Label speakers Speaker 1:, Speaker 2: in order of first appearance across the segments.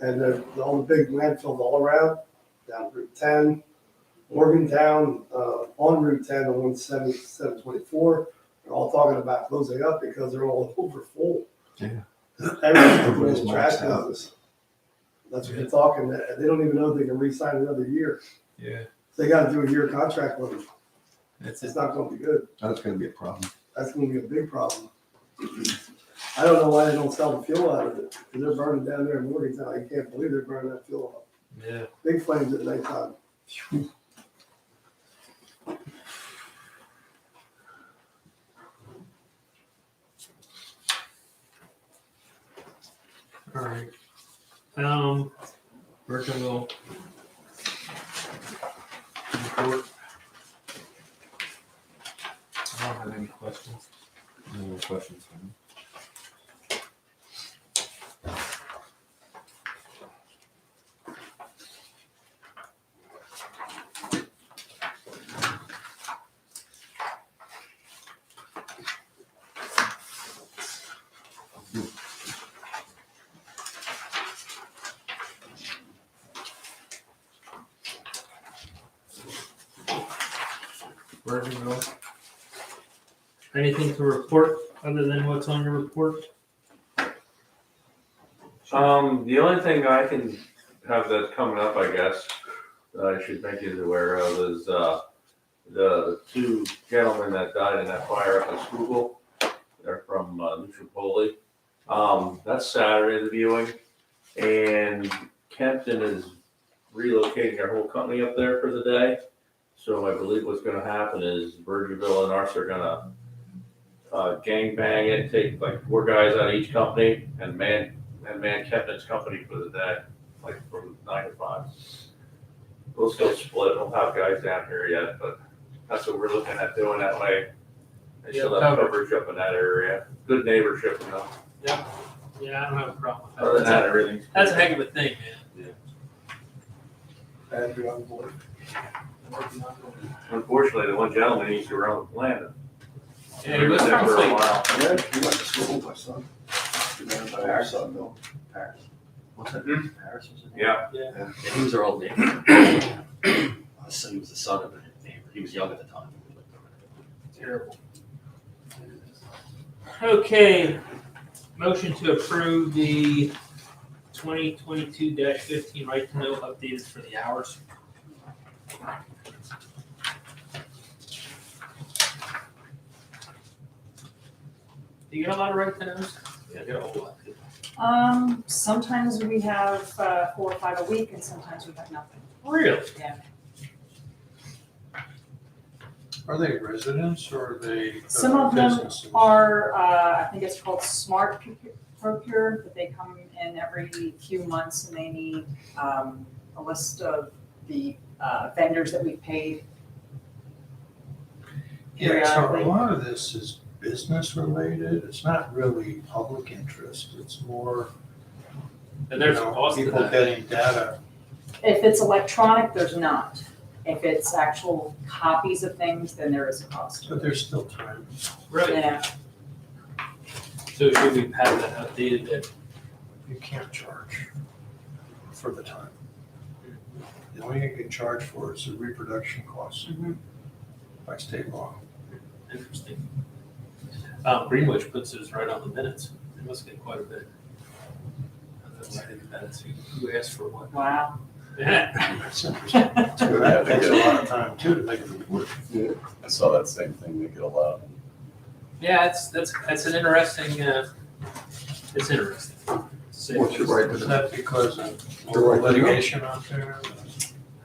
Speaker 1: and there's all the big landfills all around, down Route ten, Morgantown, uh, on Route ten, on one seventy, seven twenty-four, they're all talking about closing up because they're all overfull.
Speaker 2: Yeah.
Speaker 1: Everyone's putting in trash
Speaker 2: Everybody's maxed out.
Speaker 1: houses. That's what they're talking, and they don't even know if they can re-sign another year.
Speaker 3: Yeah,
Speaker 1: They gotta do a year contract with them.
Speaker 3: that's it.
Speaker 1: It's not gonna be good.
Speaker 2: That's gonna be a problem.
Speaker 1: That's gonna be a big problem. I don't know why they don't sell the fuel out of it, 'cause they're burning down there in Morgantown. I can't believe they're burning that fuel up.
Speaker 3: Yeah.
Speaker 1: Big flames at nighttime.
Speaker 3: All right. Um, Burkeville. Report. I don't have any questions.
Speaker 2: Any more questions?
Speaker 3: Burkeville. Anything to report other than what's on your report?
Speaker 4: Um, the only thing I can have that's coming up, I guess, that I should make you aware of is, uh, the two gentlemen that died in that fire up at Schuylkill. They're from, uh, Nutrapoli. Um, that's Saturday, the viewing. And Kempton is relocating their whole company up there for the day. So I believe what's gonna happen is Virginville and us are gonna, uh, gangbang it, take like four guys out of each company and man and man kept his company for the day, like from nine to five. We'll still split, we'll have guys down here yet, but that's what we're looking at doing that way. And still
Speaker 3: Yeah,
Speaker 4: have
Speaker 3: coverage.
Speaker 4: coverage up in that area, good neighborship, you know,
Speaker 3: Yeah, I don't have a problem
Speaker 4: other than that, everything's.
Speaker 3: That's a heck of a thing, man.
Speaker 1: And you're on board.
Speaker 4: Unfortunately, the one gentleman, he's around the planet.
Speaker 3: Yeah, he was from
Speaker 4: For a
Speaker 3: Cleveland.
Speaker 4: while.
Speaker 1: Yeah, you went to school with my son. You know, my other son, Bill.
Speaker 5: Paris. What's that?
Speaker 4: Hmm?
Speaker 5: Paris was his name?
Speaker 4: Yeah,
Speaker 5: Yeah, he was our old neighbor. I assume he was the son of a neighbor. He was young at the time.
Speaker 3: Terrible. Okay, motion to approve the twenty twenty-two fifteen right to know updated for the hours. Do you get a lot of right to knows? Yeah, I get a whole lot.
Speaker 6: Um, sometimes we have uh, four or five a week and sometimes we have nothing.
Speaker 3: Really?
Speaker 7: Are they residents or are they? uh,
Speaker 6: Some of them
Speaker 7: businesses?
Speaker 6: Our, uh, I think it's called Smart Procu- Procure, that they come in every few months and they need um, a list of the uh, vendors that we paid.
Speaker 7: Yeah, so a
Speaker 6: periodically.
Speaker 7: lot of this is business related. It's not really public interest. It's more, you
Speaker 3: And there's a
Speaker 7: know,
Speaker 3: cost to
Speaker 7: people
Speaker 3: that.
Speaker 7: getting data.
Speaker 6: If it's electronic, there's not. If it's actual copies of things, then there is a cost.
Speaker 7: But there's still time.
Speaker 3: Right,
Speaker 6: Yeah,
Speaker 3: so should we have that updated then?
Speaker 7: You can't charge for the time. The only thing you can charge for is the reproduction costs
Speaker 6: Mhm.
Speaker 7: by state law.
Speaker 3: Interesting. Um, Greenwich puts his right on the minutes. It must get quite a bit. I don't know why they did that. Who who asked for what?
Speaker 6: wow.
Speaker 7: That's interesting. So That takes a lot of time too to make it work.
Speaker 8: I saw that same thing make it allowed.
Speaker 3: Yeah, it's, that's, that's an interesting, uh, it's interesting. So-
Speaker 2: What's your right
Speaker 7: Is
Speaker 2: to know?
Speaker 7: that because of
Speaker 2: You're right.
Speaker 7: litigation out there?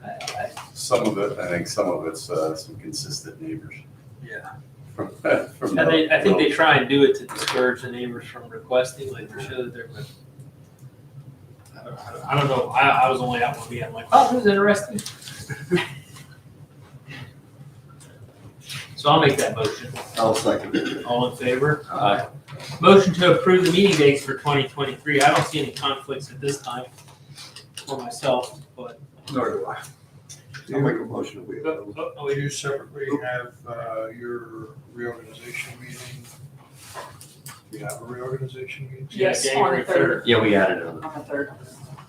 Speaker 3: I- I-
Speaker 8: Some of it, I think some of it's uh, some consistent neighbors.
Speaker 3: Yeah.
Speaker 8: From, from.
Speaker 3: And they, I think
Speaker 8: the-
Speaker 3: they try and do it to discourage the neighbors from requesting, like to show that they're. but I don't- I don't- I don't know, I, I was only out one weekend, like, oh, this is interesting. So I'll make that motion.
Speaker 2: I'll second it.
Speaker 3: All in favor? Aye. Motion to approve the meeting dates for twenty twenty-three. I don't see any conflicts at this time for myself, but.
Speaker 2: Nor do I. I'll make a motion that we
Speaker 3: Oh,
Speaker 2: approve.
Speaker 3: oh, oh,
Speaker 7: Will you separately have uh, your reorganization meeting? Do you have a reorganization meeting?
Speaker 3: yeah,
Speaker 6: Yes, on the
Speaker 3: January 3rd.
Speaker 5: Yeah, we added it on
Speaker 6: On the third.